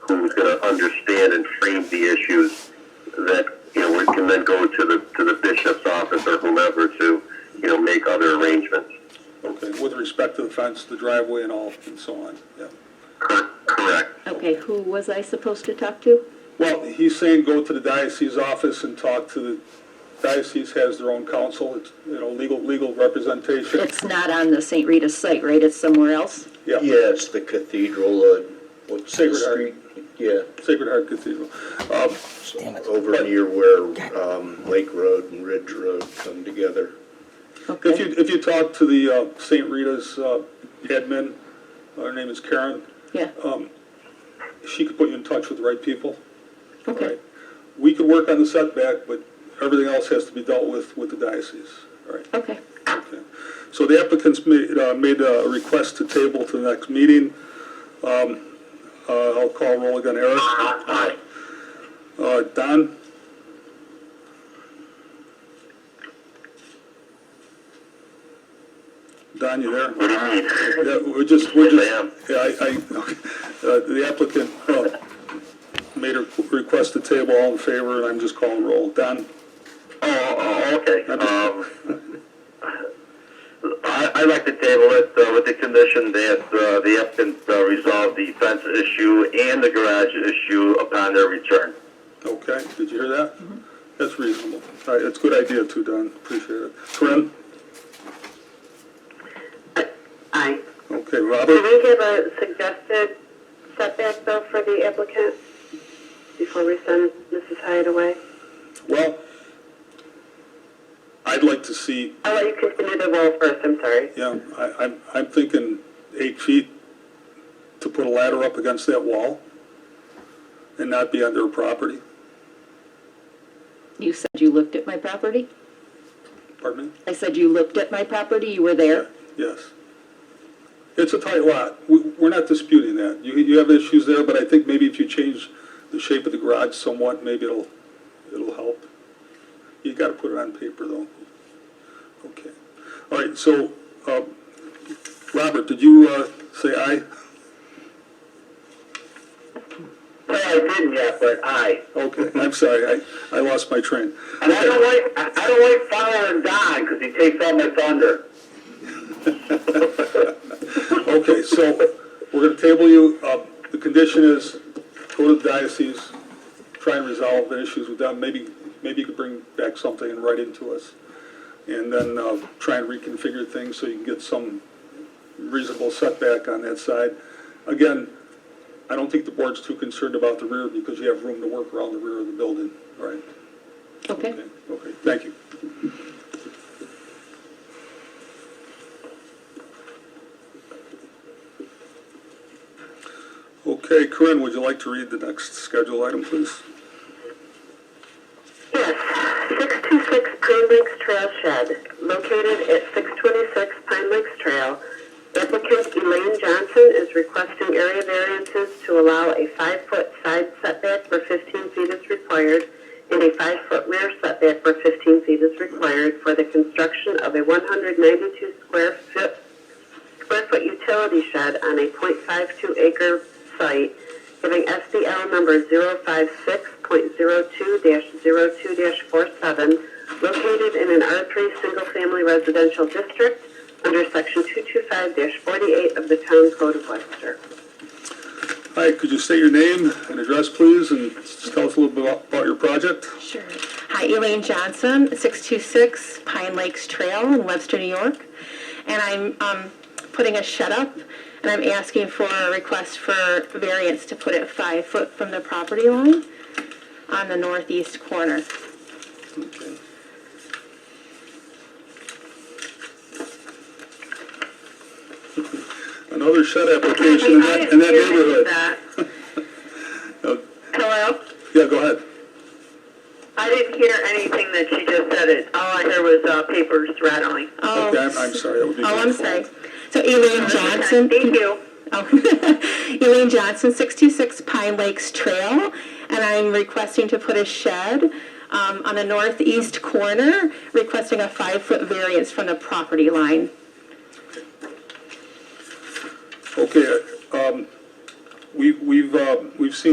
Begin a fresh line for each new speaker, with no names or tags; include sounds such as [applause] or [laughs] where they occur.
who's going to understand and frame the issues that, you know, we can then go to the, to the bishop's office or whomever to, you know, make other arrangements.
Okay, with respect to the fence, the driveway and all, and so on, yeah.
Cor- Correct.
Okay, who was I supposed to talk to?
Well, he's saying go to the diocese office and talk to the, diocese has their own counsel, it's, you know, legal, legal [laughs] representation,
It's not on the St. Rita's site, right? It's somewhere else?
yeah,
Yeah, it's the cathedral, uh, what's the
Sacred Heart.
street? Yeah,
Sacred Heart Cathedral. Um,
so over near where, um, Lake Road and Ridge Road come together.
If you,
Okay,
if you talk to the uh, St. Rita's uh, admin, her name is Karen,
yeah,
um, she could put you in touch with the right people.
okay,
Right. We could work on the setback, but everything else has to be dealt with with the diocese. All right.
okay.
Okay. So the applicants made, uh, made a request to table to the next meeting. Um, uh, I'll call roll again, Eric. Aye. Uh, Don? Don, you there?
What do you mean?
Yeah, we're just, we're
Yes, I am.
just, yeah, I, I, okay. Uh, the applicant, uh, made a request to table, all in favor, and I'm just calling roll. Don?
Oh, oh, okay.
I'm just-
Um, I, I'd like to table it uh, with the condition that uh, the applicant uh, resolve the fence issue and the garage issue upon their return.
Okay, did you hear that? That's reasonable. All right, that's a good idea too, Don, appreciate it. Corinne?
Aye.
Okay,
Can
Robert?
we give a suggested setback though for the applicant before we send Mrs. Hyatt away?
Well, I'd like to see,
I'll let you continue the roll first, I'm sorry.
yeah, I, I'm, I'm thinking eight feet to put a ladder up against that wall and not be on their property.
You said you looked at my property?
Pardon me?
I said you looked at my property, you were there?
Yes. It's a tight lot. We, we're not disputing that. You, you have issues there, but I think maybe if you change the shape of the garage somewhat, maybe it'll, it'll help. You gotta put it on paper though. Okay. All right, so, um, Robert, did you, uh, say aye?
No, I didn't yet, but I.
Okay, I'm sorry, I, I lost my train.
And I don't like, I I don't like following Don because he takes all my thunder.
Okay, so we're gonna table you. Uh, the condition is go to the diocese, try and resolve the issues with them. Maybe, maybe you could bring back something and write into us. And then, uh, try and reconfigure things so you can get some reasonable setback on that side. Again, I don't think the board's too concerned about the rear because you have room to work around the rear of the building, right?
Okay,
Okay, thank you. Okay, Corinne, would you like to read the next schedule item, please?
Yes, 626 Pine Lakes Trail Shed, located at 626 Pine Lakes Trail. Applicant Elaine Johnson is requesting area variances to allow a five-foot side setback where 15 feet is required and a five-foot rear setback where 15 feet is required for the construction of a 192 square foot square foot utility shed on a .52 acre site, giving SDL number 056.02-02-47, located in an R3 single family residential district under section 225-48 of the town code of Webster.
Hi, could you say your name and address, please, and just tell us a little bit about- about your project?
Sure. Hi, Elaine Johnson, 626 Pine Lakes Trail in Webster, New York. And I'm um, putting a shed up, and I'm asking for a request for variance to put it five foot from the property line on the northeast corner.
Okay. Another shed application in that, in that neighborhood. [laughs] Uh,
Hello?
Yeah, go ahead.
I didn't hear anything that she just said. It All I heard was uh, papers rattling.
Oh,
Okay, I'm, I'm sorry, that would be.
Oh,
my
I'm
fault.
sorry. So Elaine Johnson.
Thank you.
Oh. [laughs] Elaine Johnson, 66 Pine Lakes Trail, and I'm requesting to put a shed um, on the northeast corner, requesting a five-foot variance from the property line.
Okay, um, we, we've, uh, we've seen